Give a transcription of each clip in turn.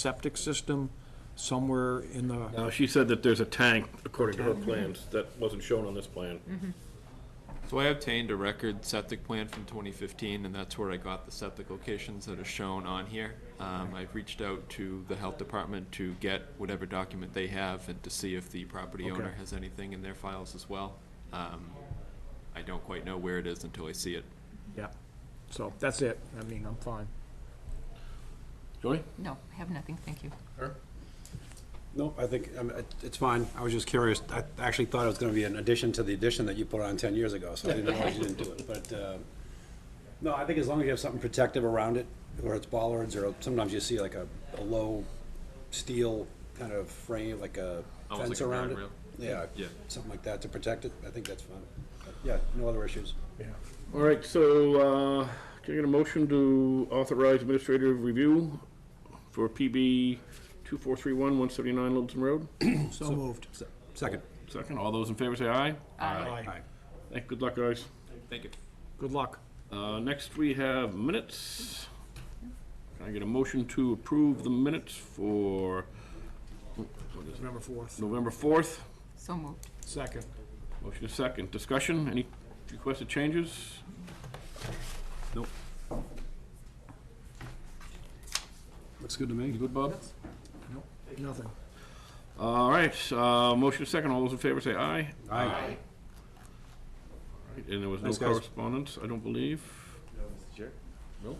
septic system somewhere in the, Now, she said that there's a tank, according to her plans, that wasn't shown on this plan. So I obtained a record septic plan from 2015, and that's where I got the septic locations that are shown on here. Um, I've reached out to the health department to get whatever document they have and to see if the property owner Okay. has anything in their files as well. Um, I don't quite know where it is until I see it. yeah. So that's it. I mean, I'm fine. Joey? No, I have nothing, thank you. No, I think, um, it- it's fine. I was just curious. I actually thought it was gonna be an addition to the addition that you put on ten years ago, so I didn't know why you didn't do it. But, uh, no, I think as long as you have something protective around it, whether it's bollards or sometimes you see like a, a low steel kind of frame, like a Almost fence like a around it. guardrail. Yeah, Yeah. something like that to protect it. I think that's fine. But, Yeah, no other issues. All right, so, uh, can I get a motion to authorize administrative review for PB 2431, 179 Littleton Road? So moved. Se- Second. Second, all those in favor say aye. Aye. Hey, Good luck, guys. Thank you. Good luck. Uh, Next, we have minutes. Can I get a motion to approve the minutes for November 4th. November 4th? So moved. Second. Motion is second. Discussion, any requested changes? Nope. Looks good to me. You good, Bob? Nothing. All right, uh, motion is second. All those in favor say aye. Aye. And there was no Thanks, guys. correspondence, I don't believe. No.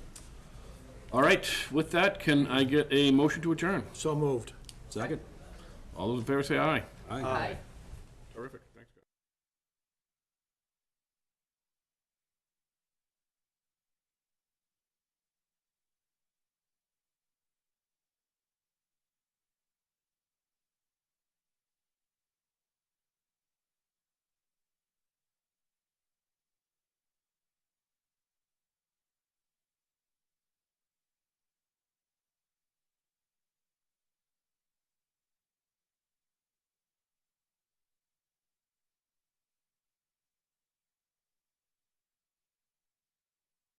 All right, with that, can I get a motion to adjourn? So moved. Second. All those in favor say aye. Aye. Aye.